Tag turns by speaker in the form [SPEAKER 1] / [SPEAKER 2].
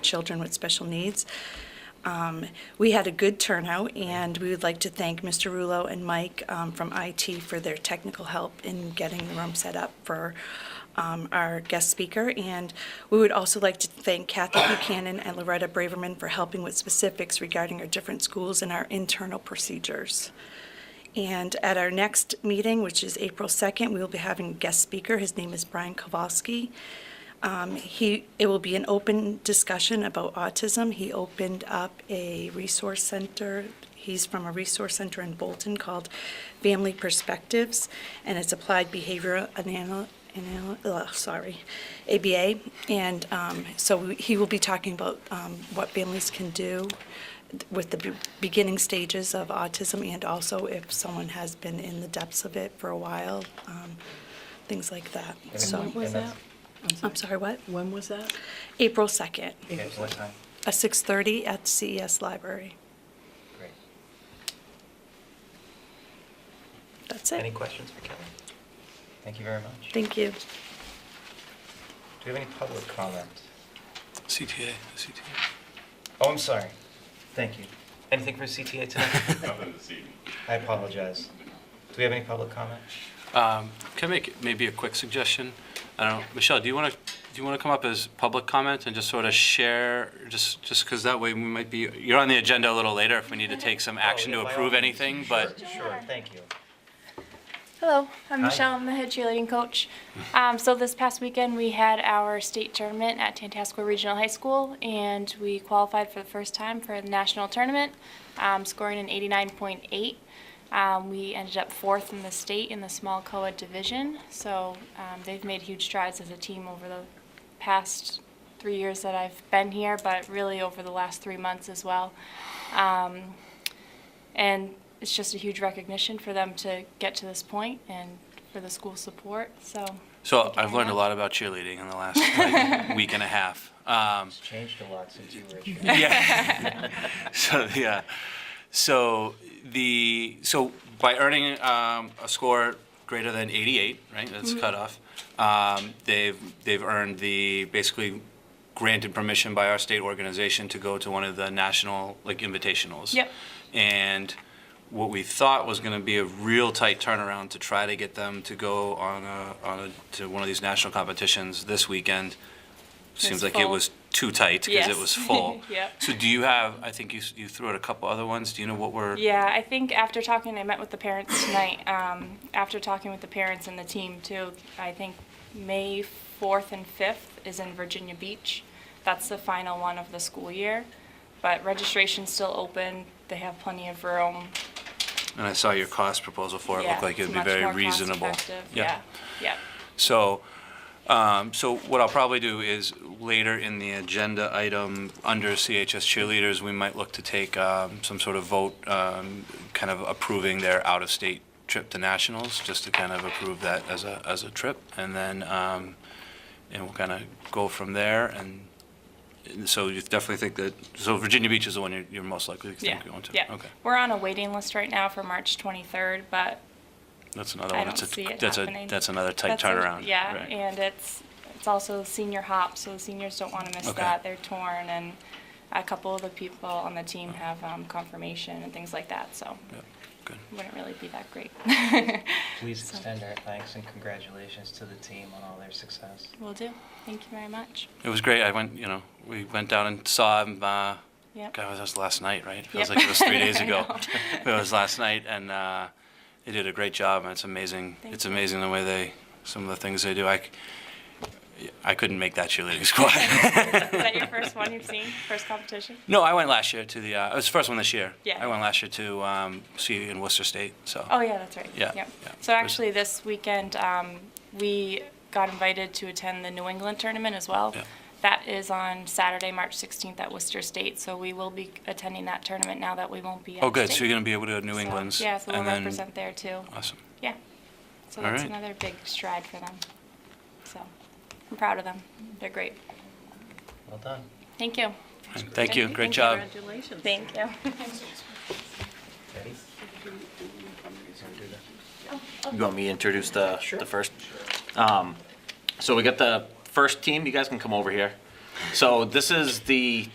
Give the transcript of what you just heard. [SPEAKER 1] children with special needs. Um, We had a good turnout, and we would like to thank Mr. Rulo and Mike um, from IT for their technical help in getting the room set up for um, our guest speaker. And we would also like to thank Kathy Buchanan and Loretta Braverman for helping with specifics regarding our different schools and our internal procedures. And at our next meeting, which is April 2nd, we will be having a guest speaker. His name is Brian Kowalski. Um, He, it will be an open discussion about autism. He opened up a resource center. He's from a resource center in Bolton called Family Perspectives, and it's Applied Behavioral Anal, Anal- ugh, sorry, ABA. And um, so we- he will be talking about um, what families can do with the be- beginning stages of autism, and also if someone has been in the depths of it for a while, um, things like that.
[SPEAKER 2] And
[SPEAKER 1] So.
[SPEAKER 2] when was that?
[SPEAKER 1] I'm sorry, what?
[SPEAKER 3] When was that?
[SPEAKER 1] April 2nd,
[SPEAKER 2] Okay, what time?
[SPEAKER 1] at 6:30 at CES Library.
[SPEAKER 2] Great.
[SPEAKER 1] That's
[SPEAKER 2] Any
[SPEAKER 1] it.
[SPEAKER 2] questions for Kelly? Thank you very much.
[SPEAKER 1] Thank you.
[SPEAKER 2] Do we have any public comment?
[SPEAKER 4] CTA, CTA.
[SPEAKER 2] Oh, I'm sorry. Thank you. Anything for CTA tonight?
[SPEAKER 5] Nothing this evening.
[SPEAKER 2] I apologize. Do we have any public comment?
[SPEAKER 4] Um, Can I make maybe a quick suggestion? I don't know, Michelle, do you want to, do you want to come up as public comment and just sort of share, just, just because that way we might be, you're on the agenda a little later if we need to take some action to
[SPEAKER 2] Oh, yeah, by all
[SPEAKER 4] approve
[SPEAKER 2] means.
[SPEAKER 4] anything,
[SPEAKER 2] Sure,
[SPEAKER 4] but
[SPEAKER 2] Sure, thank you.
[SPEAKER 6] Hello, I'm
[SPEAKER 2] Hi.
[SPEAKER 6] Michelle. I'm the head cheerleading coach. Um, so this past weekend we had our state tournament at Tantasco Regional High School, and we qualified for the first time for the national tournament, um, scoring an 89.8. Um, we ended up fourth in the state in the small co-ed division. So um, they've made huge strides as a team over the past three years that I've been here, but really over the last three months as well. Um, and it's just a huge recognition for them to get to this point and for the school support, so.
[SPEAKER 4] So
[SPEAKER 6] thank you
[SPEAKER 4] I've
[SPEAKER 6] very
[SPEAKER 4] learned a
[SPEAKER 6] much.
[SPEAKER 4] lot about cheerleading in the last like, week and a half. Um,
[SPEAKER 2] It's changed a lot since you were here.
[SPEAKER 4] Yeah. so yeah. So the so by earning um, a score greater than 88, right? That's cutoff. Um, they've they've earned the basically granted permission by our state organization to go to one of the national like invitationals.
[SPEAKER 6] Yep.
[SPEAKER 4] And what we thought was going to be a real tight turnaround to try to get them to go on a, on a, to one of these national competitions this weekend seems
[SPEAKER 6] It's
[SPEAKER 4] like it
[SPEAKER 6] full.
[SPEAKER 4] was too tight because it
[SPEAKER 6] Yes.
[SPEAKER 4] was full.
[SPEAKER 6] Yep.
[SPEAKER 4] So do you have? I think you s- you threw out a couple other ones. Do you know what were?
[SPEAKER 6] Yeah, I think after talking, I met with the parents tonight, um, after talking with the parents and the team too, I think May fourth and fifth is in Virginia Beach. That's the final one of the school year, but registration's still open, they have plenty of room.
[SPEAKER 4] And I saw your cost proposal for it.
[SPEAKER 6] Yeah,
[SPEAKER 4] looked like it
[SPEAKER 6] it's
[SPEAKER 4] would be
[SPEAKER 6] much
[SPEAKER 4] very
[SPEAKER 6] more
[SPEAKER 4] reasonable.
[SPEAKER 6] cost-effective. Yeah, yeah.
[SPEAKER 4] So, um, so what I'll probably do is later in the agenda item under CHS cheerleaders, we might look to take um, some sort of vote, um, kind of approving their out-of-state trip to nationals, just to kind of approve that as a as a trip, and then um, and we'll kind of go from there. And, and so you definitely think that so Virginia Beach is the one you're, you're most likely to think
[SPEAKER 6] Yeah,
[SPEAKER 4] you're going to.
[SPEAKER 6] yeah.
[SPEAKER 4] Okay,
[SPEAKER 6] We're on a waiting list right now for March 23rd, but
[SPEAKER 4] that's another
[SPEAKER 6] I
[SPEAKER 4] one.
[SPEAKER 6] don't
[SPEAKER 4] that's
[SPEAKER 6] see
[SPEAKER 4] a
[SPEAKER 6] it
[SPEAKER 4] that's
[SPEAKER 6] happening.
[SPEAKER 4] a that's another tight
[SPEAKER 6] that's a-
[SPEAKER 4] turnaround.
[SPEAKER 6] yeah,
[SPEAKER 4] right.
[SPEAKER 6] and it's it's also senior hop, so the seniors don't want to miss
[SPEAKER 4] Okay.
[SPEAKER 6] that. They're torn, and a couple of the people on the team have um, confirmation and things like that, so
[SPEAKER 4] yeah, good.
[SPEAKER 6] it wouldn't really be that great.
[SPEAKER 2] Please
[SPEAKER 6] So,
[SPEAKER 2] extend our thanks and congratulations to the team on all their success.
[SPEAKER 6] Will do. Thank you very much.
[SPEAKER 4] It was great. I went, you know, we went down and saw him. Uh,
[SPEAKER 6] Yep.
[SPEAKER 4] God, that was last night, right? It feels
[SPEAKER 6] Yep.
[SPEAKER 4] like it was three days
[SPEAKER 6] I
[SPEAKER 4] ago.
[SPEAKER 6] know.
[SPEAKER 4] it was last night, and uh, they did a great job. And it's amazing.
[SPEAKER 6] Thank
[SPEAKER 4] it's
[SPEAKER 6] you.
[SPEAKER 4] amazing the way they, some of the things they do. I, c- I couldn't make that cheerleading squad.
[SPEAKER 6] Is that your first one you've seen? First competition?
[SPEAKER 4] no, I went last year to the. Uh, it was the first one this year.
[SPEAKER 6] Yeah.
[SPEAKER 4] I went last year to um, see you in Worcester State. So.
[SPEAKER 6] Oh, yeah, that's right.
[SPEAKER 4] Yeah,
[SPEAKER 6] Yep.
[SPEAKER 4] yeah.
[SPEAKER 6] So actually, this weekend, um, we got invited to attend the New England tournament as well.
[SPEAKER 4] Yeah.
[SPEAKER 6] That is on Saturday, March 16th at Worcester State, so we will be attending that tournament now that we won't be at
[SPEAKER 4] Oh, good. So
[SPEAKER 6] state.
[SPEAKER 4] you're going to be able to New
[SPEAKER 6] So,
[SPEAKER 4] England's.
[SPEAKER 6] Yeah, so we'll
[SPEAKER 4] and then-
[SPEAKER 6] represent there too.
[SPEAKER 4] Awesome.
[SPEAKER 6] Yeah. So
[SPEAKER 4] All
[SPEAKER 6] that's
[SPEAKER 4] right.
[SPEAKER 6] another big stride for them. So I'm proud of them. They're great.
[SPEAKER 2] Well done.
[SPEAKER 6] Thank you.
[SPEAKER 4] Thank, you. Great job.
[SPEAKER 3] Congratulations.
[SPEAKER 6] Thank you.
[SPEAKER 2] Ready?
[SPEAKER 7] You want me to introduce the, the first? Um, so we got the first team, you guys can come over here. So this is the